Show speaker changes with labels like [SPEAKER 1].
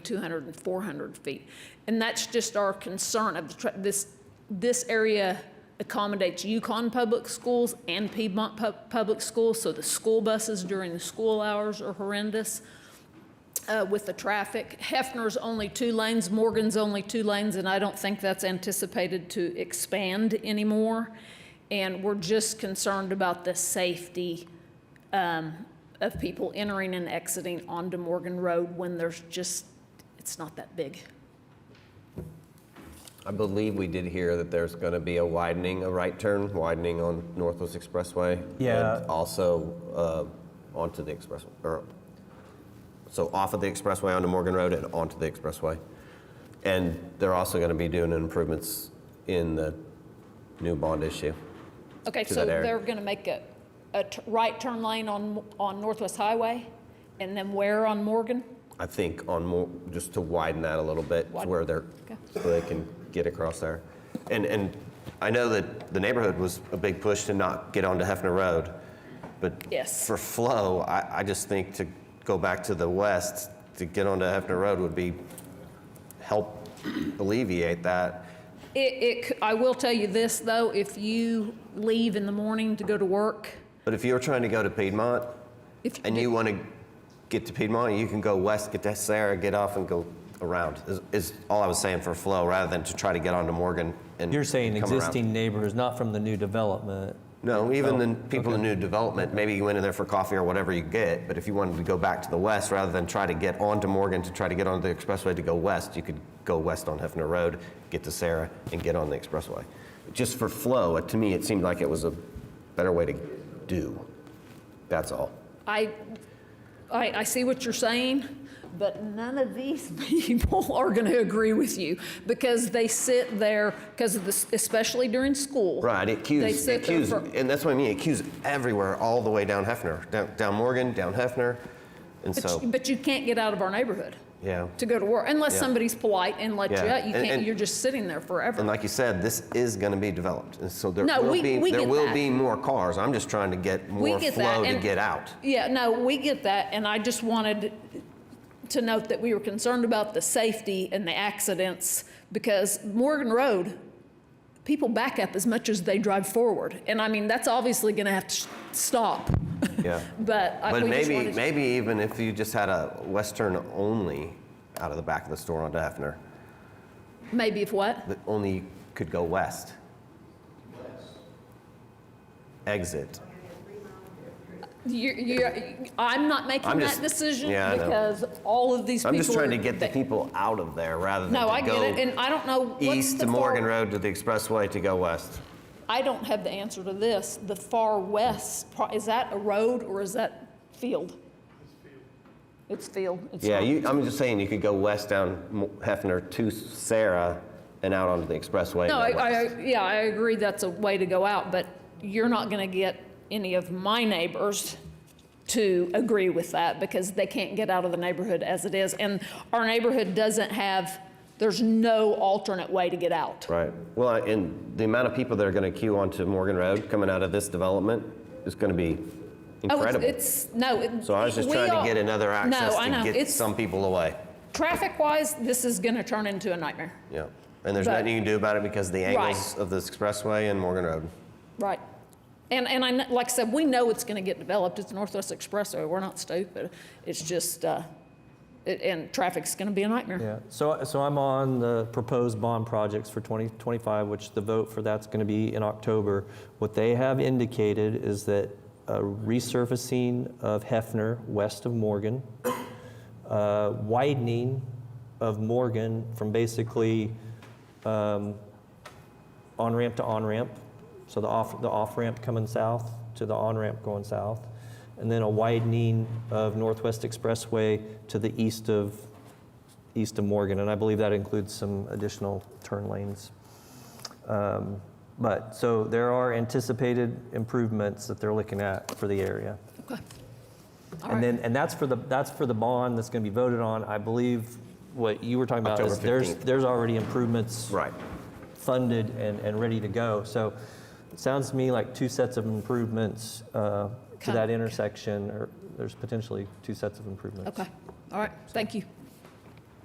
[SPEAKER 1] 200 and 400 feet. And that's just our concern of the, tra- this, this area accommodates Yukon Public Schools and Piedmont Pub- Public Schools, so the school buses during the school hours are horrendous uh, with the traffic. Hefner's only two lanes, Morgan's only two lanes, and I don't think that's anticipated to expand anymore. And we're just concerned about the safety um, of people entering and exiting onto Morgan Road when there's just, it's not that big.
[SPEAKER 2] I believe we did hear that there's going to be a widening, a right turn widening on Northwest Expressway.
[SPEAKER 3] Yeah.
[SPEAKER 2] And also uh, onto the express, or, so off of the expressway onto Morgan Road and onto the expressway. And they're also going to be doing improvements in the new bond issue.
[SPEAKER 1] Okay,
[SPEAKER 2] To
[SPEAKER 1] so
[SPEAKER 2] that area.
[SPEAKER 1] they're going to make a, a t- right turn lane on, on Northwest Highway, and then where on Morgan?
[SPEAKER 2] I think on more, just to widen that a little bit to
[SPEAKER 1] Widen-
[SPEAKER 2] where they're,
[SPEAKER 1] okay.
[SPEAKER 2] so they can get across there. And, and I know that the neighborhood was a big push to not get onto Hefner Road, but
[SPEAKER 1] Yes.
[SPEAKER 2] for flow, I, I just think to go back to the west, to get onto Hefner Road would be, help alleviate that.
[SPEAKER 1] It, it, c- I will tell you this, though, if you leave in the morning to go to work,
[SPEAKER 2] But if you're trying to go to Piedmont
[SPEAKER 1] if,
[SPEAKER 2] and you want to get to Piedmont, you can go west, get to Sarah, get off and go around, is, is all I was saying for flow, rather than to try to get onto Morgan and
[SPEAKER 3] You're saying
[SPEAKER 2] come around.
[SPEAKER 3] existing neighbors, not from the new development.
[SPEAKER 2] No, even the people in new development, maybe you went in there for coffee or whatever you get, but if you wanted to go back to the west, rather than try to get onto Morgan to try to get onto the expressway to go west, you could go west on Hefner Road, get to Sarah, and get on the expressway. Just for flow, it- to me, it seemed like it was a better way to do. That's all.
[SPEAKER 1] I, I, I see what you're saying, but none of these people are going to agree with you because they sit there, because of this, especially during school.
[SPEAKER 2] Right, it cues,
[SPEAKER 1] They
[SPEAKER 2] it
[SPEAKER 1] sit there
[SPEAKER 2] cues,
[SPEAKER 1] for-
[SPEAKER 2] and that's what I mean, it cues everywhere, all the way down Hefner, down, down Morgan, down Hefner, and
[SPEAKER 1] But,
[SPEAKER 2] so,
[SPEAKER 1] you- but you can't get out of our neighborhood
[SPEAKER 2] yeah.
[SPEAKER 1] to go to work unless
[SPEAKER 2] Yeah.
[SPEAKER 1] somebody's polite and let you
[SPEAKER 2] Yeah.
[SPEAKER 1] out. You
[SPEAKER 2] And-
[SPEAKER 1] can't,
[SPEAKER 2] and-
[SPEAKER 1] you're just sitting there
[SPEAKER 2] And
[SPEAKER 1] forever.
[SPEAKER 2] like you said, this is going to be developed, and so there
[SPEAKER 1] No,
[SPEAKER 2] will
[SPEAKER 1] we-
[SPEAKER 2] be
[SPEAKER 1] we
[SPEAKER 2] there
[SPEAKER 1] get
[SPEAKER 2] will
[SPEAKER 1] that.
[SPEAKER 2] be more cars. I'm just trying to get more
[SPEAKER 1] get that,
[SPEAKER 2] flow to
[SPEAKER 1] and-
[SPEAKER 2] get out.
[SPEAKER 1] Yeah, no, we get that. And I just wanted to note that we were concerned about the safety and the accidents because Morgan Road, people back up as much as they drive forward. And I mean, that's obviously going to have to sh- stop.
[SPEAKER 2] Yeah,
[SPEAKER 1] But, I,
[SPEAKER 2] but
[SPEAKER 1] we just
[SPEAKER 2] maybe
[SPEAKER 1] wanted to-
[SPEAKER 2] maybe even if you just had a western only out of the back of the store on Hefner,
[SPEAKER 1] maybe if what?
[SPEAKER 2] that only could go west. Exit.
[SPEAKER 1] You, you, I'm not making
[SPEAKER 2] I'm
[SPEAKER 1] that
[SPEAKER 2] just-
[SPEAKER 1] decision
[SPEAKER 2] yeah, I know.
[SPEAKER 1] because all of these
[SPEAKER 2] I'm
[SPEAKER 1] people.
[SPEAKER 2] just trying
[SPEAKER 1] are-
[SPEAKER 2] to get the
[SPEAKER 1] they-
[SPEAKER 2] people out of there rather than
[SPEAKER 1] No,
[SPEAKER 2] to
[SPEAKER 1] I
[SPEAKER 2] go
[SPEAKER 1] get it, and I don't know. what's
[SPEAKER 2] east
[SPEAKER 1] the
[SPEAKER 2] to
[SPEAKER 1] far-
[SPEAKER 2] Morgan Road to the expressway to go west.
[SPEAKER 1] I don't have the answer to this. The far west, pro- is that a road or is that field? It's field. It's
[SPEAKER 2] Yeah,
[SPEAKER 1] not-
[SPEAKER 2] you, I'm just saying you could go west down Mo- Hefner to Sarah and out onto the expressway.
[SPEAKER 1] No, I,
[SPEAKER 2] and go west.
[SPEAKER 1] I, yeah, I agree that's a way to go out, but you're not gonna get any of my neighbors to agree with that because they can't get out of the neighborhood as it is. And our neighborhood doesn't have, there's no alternate way to get out.
[SPEAKER 2] Right. Well, I- and the amount of people that are going to queue onto Morgan Road coming out of this development is going to be
[SPEAKER 1] Oh, it's-
[SPEAKER 2] incredible.
[SPEAKER 1] It's, no, it.
[SPEAKER 2] so I was just
[SPEAKER 1] we
[SPEAKER 2] trying
[SPEAKER 1] all-
[SPEAKER 2] to get another access
[SPEAKER 1] No, I know.
[SPEAKER 2] to get
[SPEAKER 1] It's-
[SPEAKER 2] some people away.
[SPEAKER 1] Traffic-wise, this is gonna turn into a nightmare.
[SPEAKER 2] Yeah. And there's
[SPEAKER 1] But-
[SPEAKER 2] nothing you can do about it because of the
[SPEAKER 1] Right.
[SPEAKER 2] angles of this expressway and Morgan Road.
[SPEAKER 1] Right. And, and I, kn- like I said, we know it's going to get developed. It's Northwest Expressway. We're not stupid. It's just, uh, it, and traffic's going to be a nightmare.
[SPEAKER 3] Yeah, so, so I'm on the proposed bond projects for 2025, which the vote for that's going to be in October. What they have indicated is that a resurfacing of Hefner west of Morgan, uh, widening of Morgan from basically on ramp to on ramp, so the off the off ramp coming south to the on ramp going south, and then a widening of Northwest Expressway to the east of east of Morgan, and I believe that includes some additional turn lanes. Um, but so there are anticipated improvements that they're looking at for the area.
[SPEAKER 1] Okay. All
[SPEAKER 3] And
[SPEAKER 1] right.
[SPEAKER 3] then, and that's for the, that's for the bond that's going to be voted on. I believe what you were talking about is
[SPEAKER 2] October
[SPEAKER 3] there's,
[SPEAKER 2] 15th.
[SPEAKER 3] there's already improvements
[SPEAKER 2] Right.
[SPEAKER 3] funded and, and ready to go. So it sounds to me like two sets of improvements uh, to
[SPEAKER 1] Come-
[SPEAKER 3] that intersection, or there's potentially two sets of improvements.
[SPEAKER 1] Okay. All right. Thank you.